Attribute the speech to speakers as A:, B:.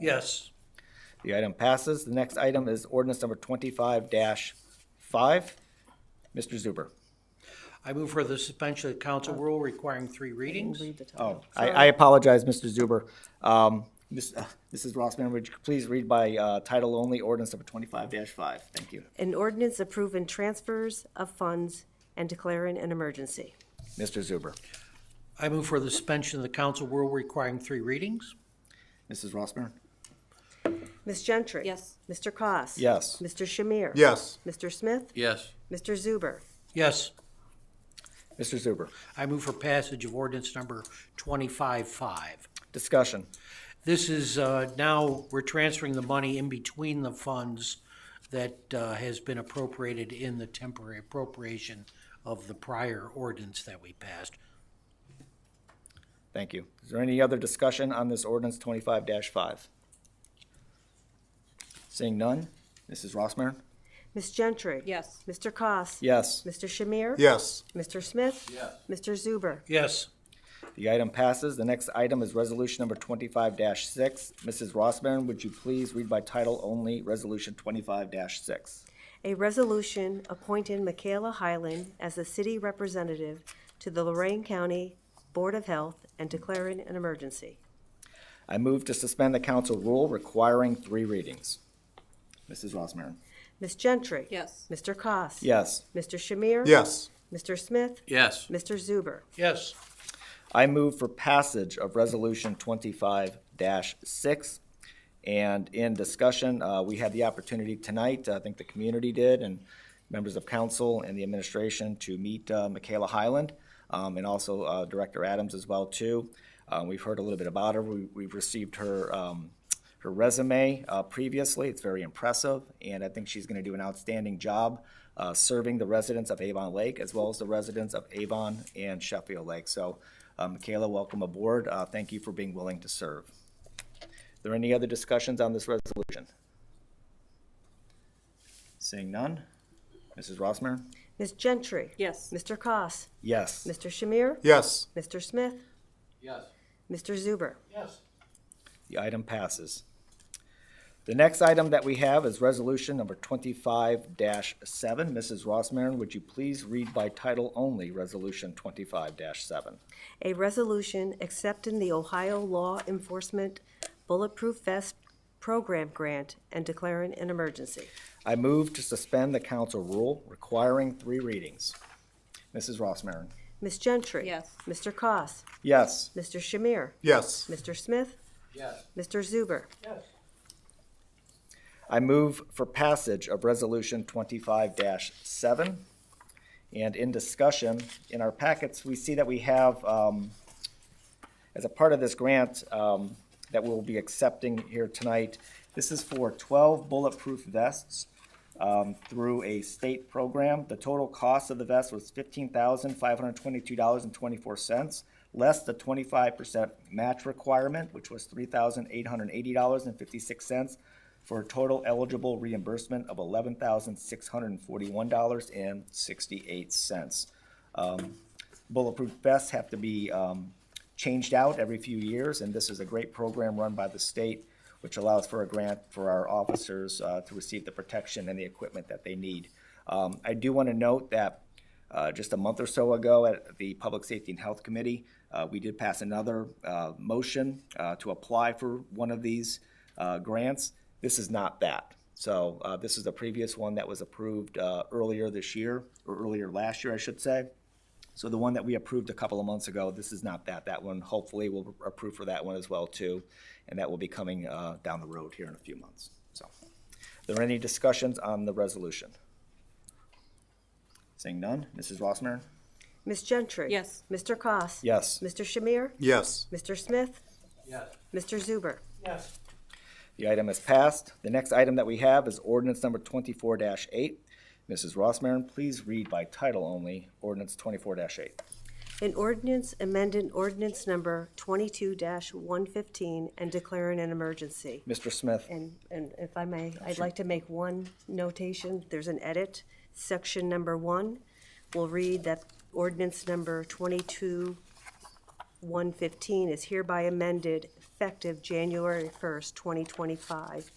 A: Yes.
B: The item passes. The next item is ordinance number twenty-five five. Mr. Zuber.
A: I move for the suspension of the council rule requiring three readings.
C: Read the
B: Oh,
C: title.
B: I, I apologize, Mr. Zuber. Um, Ms., uh, Mrs. Rossman, would you please read by, uh, title only, ordinance number twenty-five five? Thank you.
C: An ordinance approving transfers of funds and declaring an emergency.
B: Mr. Zuber.
A: I move for the suspension of the council rule requiring three readings.
B: Mrs. Rossman?
C: Ms. Gentry?
D: Yes.
C: Mr. Koss.
B: Yes.
C: Mr. Shamir?
E: yes,
C: Mr. Smith?
A: Yes.
C: Mr. Zuber?
A: Yes.
B: Mr. Zuber.
A: I move for passage of ordinance number twenty-five five.
B: Discussion.
A: This is, uh, now, we're transferring the money in between the funds that, uh, has been appropriated in the temporary appropriation of the prior ordinance that we passed.
B: Thank you. Is there any other discussion on this ordinance twenty-five five? Seeing none? Mrs. Rossmarin?
C: Ms. Gentry?
D: Yes.
C: Mr. Koss.
B: Yes.
C: Mr. Shamir?
E: yes,
C: Mr. Smith? Yes. Mr. Zuber?
A: Yes.
B: The item passes. The next item is resolution number twenty-five six. Mrs. Rossmarin, would you please read by title only, resolution twenty-five six?
C: A resolution appointing Michaela Highland as the city representative to the Lorraine County Board of Health and declaring an emergency.
B: I move to suspend the council rule requiring three readings. Mrs. Rossmarin?
C: Ms. Gentry?
D: Yes.
C: Mr. Koss.
B: Yes.
C: Mr. Shamir?
E: yes,
C: Mr. Smith?
A: Yes.
C: Mr. Zuber?
A: Yes.
B: I move for passage of Resolution twenty-five six. And in discussion, uh, we had the opportunity tonight, uh, I think the community did, and members of council and the administration to meet uh, Michaela Highland, um, and also uh, Director Adams as well, too. Uh, We've heard a little bit about her. We- We've received her um, her resume uh, previously. It's very impressive, and I think she's going to do an outstanding job uh, serving the residents of Avon Lake as well as the residents of Avon and Sheffield Lake. So, uh, Michaela, welcome aboard. Uh, Thank you for being willing to serve. Are there any other discussions on this resolution? Seeing none? Mrs. Rossmarin?
C: Ms. Gentry?
D: Yes.
C: Mr. Koss.
B: Yes.
C: Mr. Shamir?
E: yes,
C: Mr. Smith?
A: Yes.
C: Mr. Zuber?
A: Yes.
B: The item passes. The next item that we have is resolution number twenty-five seven. Mrs. Rossmarin, would you please read by title only, resolution twenty-five seven?
C: A resolution accepting the Ohio Law Enforcement Bulletproof Vest Program Grant and declaring an emergency.
B: I move to suspend the council rule requiring three readings. Mrs. Rossmarin?
C: Ms. Gentry?
D: Yes.
C: Mr. Koss.
B: Yes.
C: Mr. Shamir?
E: yes,
C: Mr. Smith?
A: Yes.
C: Mr. Zuber?
B: I move for passage of Resolution twenty-five seven. And in discussion, in our packets, we see that we have, um, as a part of this grant, um, that we'll be accepting here tonight, this is for twelve bulletproof vests, um, through a state program. The total cost of the vest was fifteen thousand five hundred twenty-two dollars and twenty-four cents, less the twenty-five percent match requirement, which was three thousand eight hundred eighty dollars and fifty-six cents, for a total eligible reimbursement of eleven thousand six hundred and forty-one dollars and sixty-eight cents. Bulletproof vests have to be um, changed out every few years, and this is a great program run by the state, which allows for a grant for our officers uh, to receive the protection and the equipment that they need. Um, I do want to note that uh, just a month or so ago at the Public Safety and Health Committee, uh, we did pass another uh, motion uh, to apply for one of these uh, grants. This is not that. So uh, this is the previous one that was approved uh, earlier this year, or earlier last year, I should say. So the one that we approved a couple of months ago, this is not that. That one, hopefully, we'll approve for that one as well, too. And that will be coming uh, down the road here in a few months. So, are there any discussions on the resolution? Seeing none, Mrs. Rossmarin?
C: Ms. Gentry?
D: Yes.
C: Mr. Koss.
B: Yes.
C: Mr. Shamir?
E: yes,
C: Mr. Smith?
A: Yes.
C: Mr. Zuber?
A: Yes.
B: The item is passed. The next item that we have is ordinance number twenty-four eight. Mrs. Rossmarin, please read by title only, ordinance twenty-four eight.
C: An ordinance amending ordinance number twenty-two one fifteen and declaring an emergency.
B: Mr. Smith?
C: And, and if I may, I'd like to make one notation. There's an edit. Section number one will read that ordinance number twenty-two one fifteen is hereby amended effective January 1st, 2025,